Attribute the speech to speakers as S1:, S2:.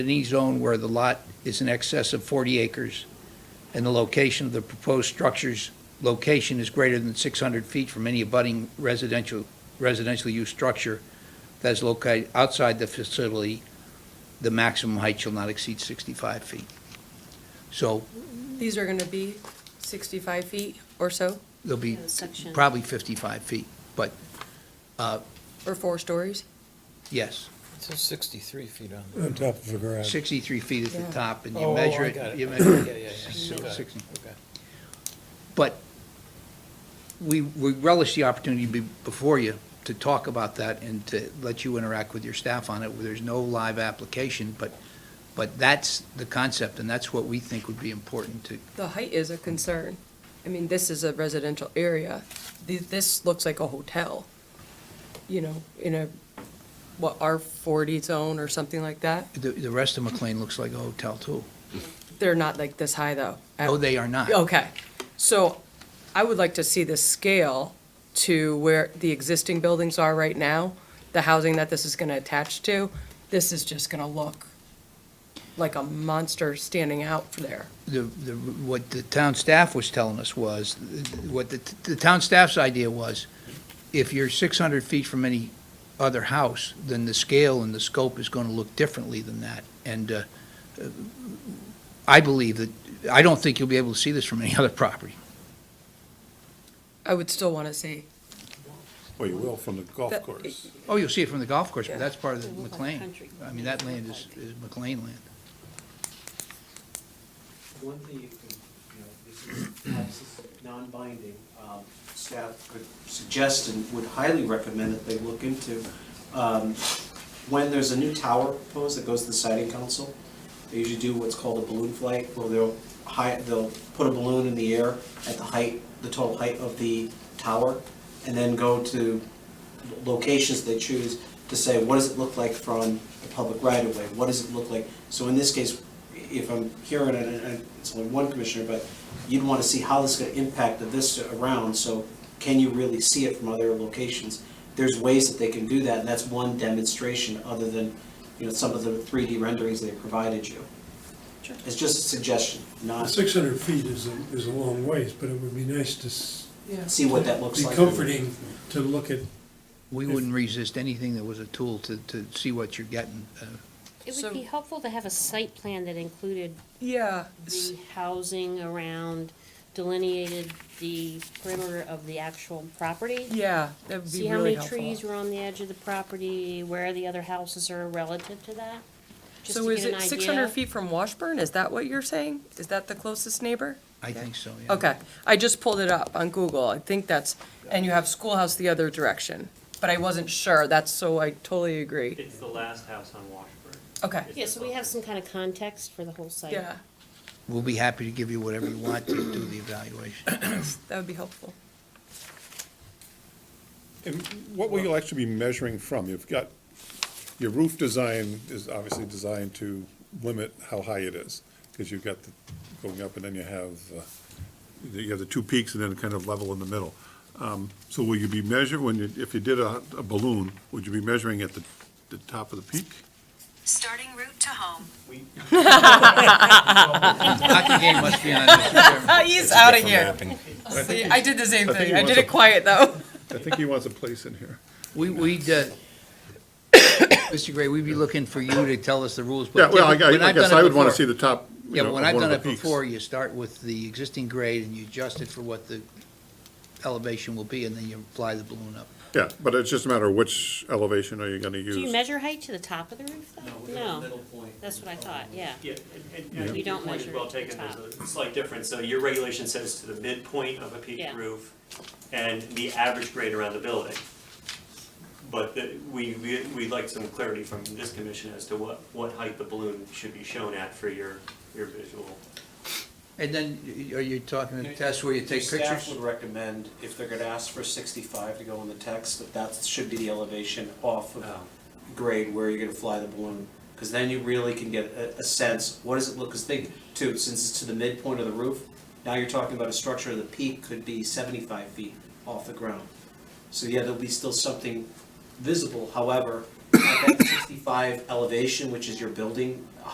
S1: any zone where the lot is in excess of 40 acres and the location of the proposed structure's location is greater than 600 feet from any abutting residential, residential use structure that is located outside the facility, the maximum height shall not exceed 65 feet. So
S2: These are going to be 65 feet or so,
S1: there'll be
S3: Yeah, the section.
S1: probably 55 feet, but
S2: or four stories?
S1: yes,
S4: It says 63 feet on there.
S5: on top of a garage.
S1: 63 feet at
S2: Yeah.
S1: the top and
S4: Oh,
S1: you
S4: oh,
S1: measure
S4: I
S1: it.
S4: got it.
S1: you measure
S4: Yeah, yeah, yeah.
S1: so
S4: Got it.
S1: 60.
S4: Okay.
S1: But we we relish the opportunity to be before you to talk about that and to let you interact with your staff on it. There's no live application, but, but that's the concept, and that's what we think would be important to,
S2: The height is a concern. I mean, this is a residential area. Th- This looks like a hotel, you know, in a, what, R40 zone or something like that.
S1: the, the rest of McLean looks like a hotel too.
S2: They're not like this high, though.
S1: No, they are not.
S2: Okay. So I would like to see the scale to where the existing buildings are right now, the housing that this is going to attach to. This is just going to look like a monster standing out there.
S1: the, the, what the town staff was telling us was, what the, the town staff's idea was, if you're six hundred feet from any other house, then the scale and the scope is gonna look differently than that. And, uh, I believe that, I don't think you'll be able to see this from any other property.
S2: I would still want to see.
S5: Well, you will from the golf
S2: That-
S5: course.
S1: Oh, you'll see it from the golf course, but
S2: Yeah.
S1: that's part of
S3: It'll
S1: the
S3: look like
S1: McLean.
S3: country.
S1: I mean, that land is, is McLean land.
S6: One thing you can, you know, this is, perhaps this is non-binding, um, staff could suggest and would highly recommend that they look into, um, when there's a new tower proposed that goes to the siding council, they usually do what's called a balloon flight, where they'll high, they'll put a balloon in the air at the height, the total height of the tower, and then go to locations they choose to say, what does it look like from the public right of way? What does it look like? So in this case, if I'm hearing it, and- and it's only one commissioner, but you'd want to see how this is going to impact the vista around, so can you really see it from other locations? There's ways that they can do that, and that's one demonstration, other than, you know, some of the 3D renderings they provided you.
S3: Sure.
S6: It's just a suggestion, not
S5: Six hundred feet is, a- is a long ways, but it would be nice to s-
S6: see what that looks
S5: be
S6: like.
S5: comforting to look at.
S1: We wouldn't resist anything that was a tool to, to see what you're getting, uh,
S3: It
S2: So-
S3: would be helpful to have a site plan that included
S2: Yeah.
S3: the housing around, delineated the perimeter of the actual property.
S2: Yeah, that would
S3: See
S2: be
S3: how
S2: really
S3: many trees
S2: helpful.
S3: were on the edge of the property, where the other houses are relative to that? just
S2: So
S3: to
S2: is
S3: get an
S2: it 600
S3: idea.
S2: feet from Washburn? Is that what you're saying? Is that the closest neighbor?
S1: I think so, yeah.
S2: Okay, I just pulled it up on Google. I think that's, and you have schoolhouse the other direction, but I wasn't sure. That's so, I totally agree.
S7: It's the last house on Washburn.
S2: Okay,
S3: Yeah, so we have some kind of context for the whole site.
S2: yeah,
S1: We'll be happy to give you whatever you want to do the evaluation.
S2: that would be helpful.
S8: And what will you actually be measuring from? You've got, your roof design is obviously designed to limit how high it is, because you've got the, going up, and then you have, uh, you have the two peaks and then kind of level in the middle. Um, So will you be measuring, when you, if you did a a balloon, would you be measuring at the, the top of the peak?
S9: Starting route to home.
S1: Hockey game must be on, Mr. Chairman.
S2: Ah, He's out of here. See, I did the same
S8: I think
S2: thing.
S8: he
S2: I did
S8: wants
S2: it
S8: a-
S2: quiet, though.
S8: I think he wants a place in here.
S1: We, we'd, uh, Mr. Gray, we'd be looking for you to tell us the rules. but
S8: Yeah, well, I
S1: typically- when
S8: gu- I
S1: I've done
S8: guess
S1: it
S8: I would want to
S1: before-
S8: see the top, you
S1: Yeah, but
S8: know, of
S1: when
S8: one
S1: I've
S8: of
S1: done
S8: the
S1: it
S8: peaks.
S1: before, you start with the existing grade and you adjust it for what the elevation will be, and then you fly the balloon up.
S8: Yeah, but it's just a matter of which elevation are you going to use?
S3: Do you measure height to the top of the roof,
S6: No,
S3: though?
S6: we're at the middle point.
S3: that's what I thought, yeah.
S7: Yeah, and, and I
S3: You
S7: think your
S3: don't
S7: point is
S3: measure
S7: well
S3: it to the
S7: taken, there's
S3: top.
S7: a slight difference, so your regulation says to the midpoint of a peak
S3: Yeah.
S7: roof and the average grade around the building. But the, we, we, we'd like some clarity from this commission as to what, what height the balloon should be shown at for your, your visual.
S1: And then, y- are you talking a test where you take
S6: Your Staff
S1: pictures?
S6: would recommend, if they're gonna ask for sixty-five to go in the text, that that should be the elevation off of
S1: Oh.
S6: grade where you're gonna fly the balloon. Because then you really can get a, a sense, what does it look, because think, too, since it's to the midpoint of the roof, now you're talking about a structure, the peak could be seventy-five feet off the ground. So yeah, there'll be still something visible, however, at that sixty-five elevation, which is your building